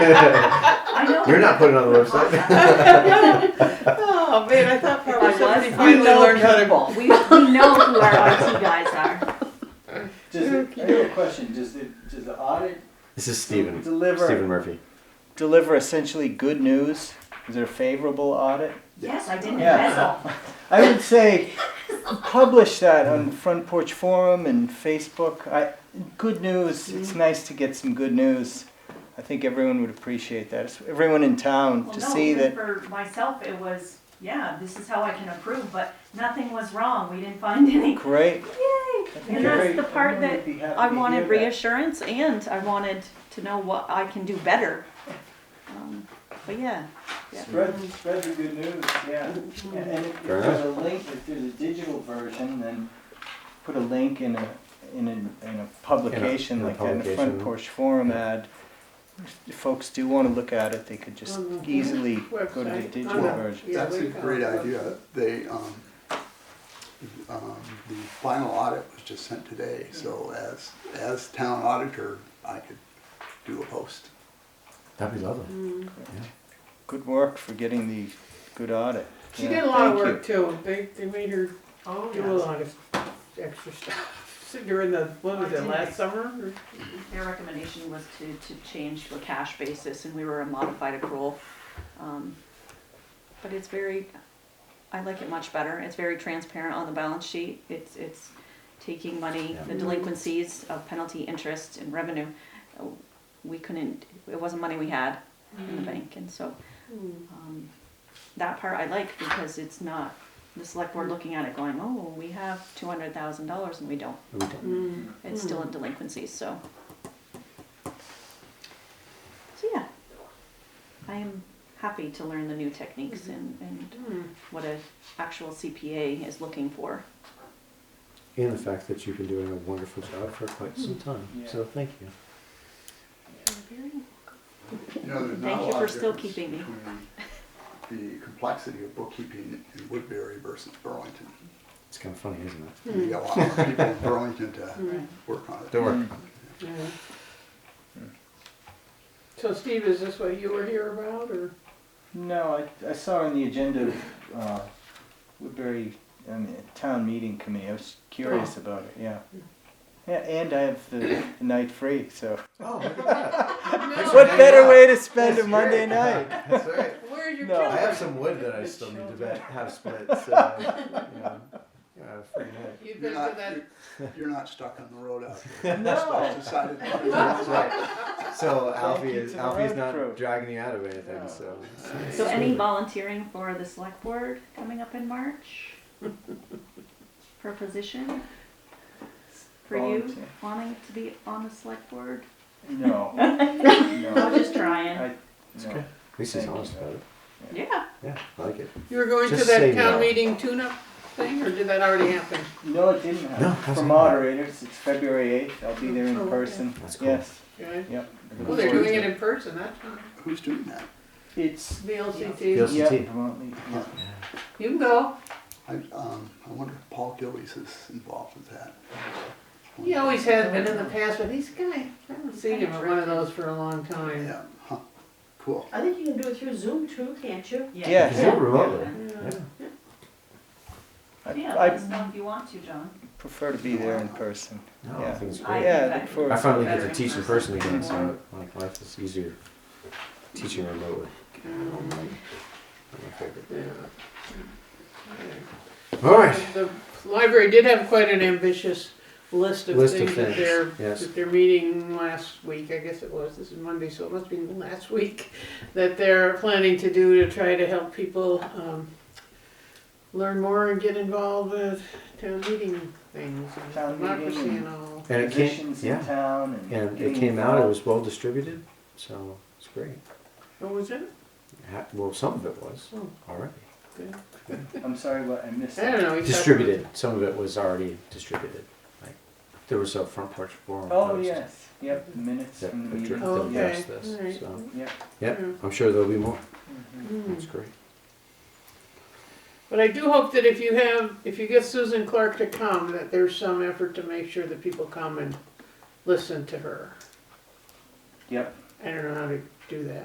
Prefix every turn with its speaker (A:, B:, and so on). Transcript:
A: I know.
B: You're not putting it on the website.
C: Oh, man, I thought
A: I
C: probably
A: was.
C: somebody
A: We
C: finally
A: know
C: learned how to.
A: We, we know who our IT guys are.
D: Does it, I have a question. Does the, does the audit
B: This is Stephen.
D: Deliver.
B: Stephen Murphy.
D: deliver essentially good news? Is it a favorable audit?
A: Yes, I didn't
D: Yeah.
A: embezzle.
D: I would say publish that on Front Porch Forum and Facebook. I, good news.
A: Mm.
D: It's nice to get some good news. I think everyone would appreciate that. It's- everyone in town
A: Well,
D: to
A: no,
D: see
A: even
D: that.
A: For myself, it was, yeah, this is how I can approve, but nothing was wrong. We didn't find any.
D: Great.
E: And
A: And
E: that's
A: that's the part that
E: I wanted reassurance and I wanted to know what I can do better. Um, But yeah,
D: Spread, spread the good news, yeah. And- And if if
B: Fair
D: there's a link, if there's a digital version, then put a link in a, in a, in a publication
B: in a
D: like that, in a
B: publication.
D: front porch forum ad. If folks do wanna look at it, they could just easily go to the
C: Website.
D: digital
C: Yeah.
D: version.
C: Yeah,
F: That's a
C: we found
F: great
C: it.
F: idea. They, um, um, the final audit was just sent today, so as, as town auditor, I could do a post.
B: That'd be
D: Mm.
B: lovely.
D: Good work for getting the good audit.
C: She
D: Yeah,
C: did a lot of
D: thank you.
C: work too. They, they made her
A: Oh,
C: do a
A: yes.
C: lot of extra stuff during the, what was it, last summer?
E: their recommendation was to, to change to a cash basis and we were a modified accrual. Um, But it's very, I like it much better. It's very transparent on the balance sheet. It's, it's taking money, the
B: Yeah.
E: delinquencies of penalty, interest and revenue. uh, We couldn't, it wasn't money we had in the bank and so um, that part I like because it's not the select board looking at it going, oh, we have two hundred thousand dollars and we don't.
B: We don't-
E: It's still in delinquency, so. So yeah, I am happy to learn the new techniques and, and what a actual CPA is looking for.
B: And the fact that you've been doing a wonderful job for quite some time.
D: Mm. Yeah.
B: So thank you.
F: You know, there's
E: Thank
F: not a
E: you
F: lot
E: for
F: of
E: still
F: difference
E: keeping me.
F: between The complexity of bookkeeping in Woodbury versus Burlington.
B: It's kind of funny, isn't it?
C: Hmm.
F: You got a lot more people in Burlington to
C: Mm.
F: work on it.
B: Mm. Don't worry.
C: Yeah. Hmm. So Steve, is this what you were here about or?
D: No, I, I saw on the agenda, uh, Woodbury, um, town meeting committee, I was curious
C: Oh.
D: about it, yeah. Yeah, and I have the the night free, so. Mm. What better way to spend a Monday night?
B: That's right.
C: Where's your
D: No.
B: I
C: children?
B: have some wood that I still need to bet- have split, so, you know, yeah, a free night.
C: You've
F: You're
C: been
F: not,
C: to that,
F: you're- you're not stuck on the road out
D: No.
F: there. Decided-
B: That's right. So Alfie
D: you
B: is,
D: to the
B: Alfie's
D: road crew.
B: not dragging you out of anything,
C: No.
B: so.
E: So any volunteering for the select board coming up in March? For a position? For you
D: Volunteer.
E: wanting to be on the select board?
D: No,
E: I'm
D: no,
E: just trying.
D: I, no.
B: At least he's honest about it.
E: Yeah,
B: Yeah, I like it.
C: you were going to
B: Just
C: that
B: say
C: town
B: no.
C: meeting tune-up thing or did that already happen?
D: No, it didn't
B: No,
D: happen.
B: how's
D: For
B: that?
D: moderators, it's February eighth, I'll be there
C: Oh,
D: in
C: okay.
D: person,
B: That's cool.
D: yes,
C: Okay.
D: yep.
C: Well, they're doing it in person, that's fine.
F: Who's doing that?
D: It's,
B: Yeah.
C: VLCT.
B: VLCT.
D: yeah, Vermont League, yeah.
C: You can go.
F: I, um, I wonder if Paul Gillies is involved with that.
C: He always has been in the past, but he's kind of, I haven't seen him at one of those for a long time.
F: Yeah, huh, cool.
G: I think you can do it through Zoom too, can't you?
D: Yeah.
B: Is it remotely?
C: Yeah.
D: I-
E: yeah,
D: I
E: let us know if you want to, John.
D: prefer to be there in person.
B: No, I
D: Yeah.
B: think it's
E: I
B: great.
D: Yeah,
E: think
D: look
E: that-
D: forward
B: I finally get
E: better
B: to
E: in
B: teach in person
E: person.
B: again, so like life is easier teaching remotely. Um, like, my favorite. All right.
C: The library did have quite an ambitious list of
B: List of
C: things at
B: things,
C: their,
B: yes.
C: at their meeting last week, I guess it was, this is Monday, so it must be last week, that they're planning to do to try to help people, um, learn more and get involved with town meeting things and
D: Town meeting
C: democracy
D: and-
C: and all.
B: And it came,
D: Musicians in
B: yeah,
D: town and.
B: and it
D: getting
B: came out, it
D: involved.
B: was well distributed, so it's great.
C: What was it?
B: Ha- Well, some of it was
C: Oh.
B: already.
C: Good.
D: I'm sorry, what, I missed
C: I don't
D: that.
C: know. we talked-
B: Distributed, some of it was already distributed. Like, there was a front porch forum.
D: Oh, Mm.
B: post
D: yes, yep, the minutes
B: That
D: from the
B: addre-
D: meeting.
C: Oh,
B: that
C: okay.
B: addressed this,
C: Alright.
B: so,
D: Yep, mm-hmm.
B: yep,
C: Yeah.
B: I'm sure there'll be more.
C: Mm.
B: That's great.
C: But I do hope that if you have, if you get Susan Clark to come, that there's some effort to make sure that people come and listen to her.
D: yep,
C: I don't know how to do that.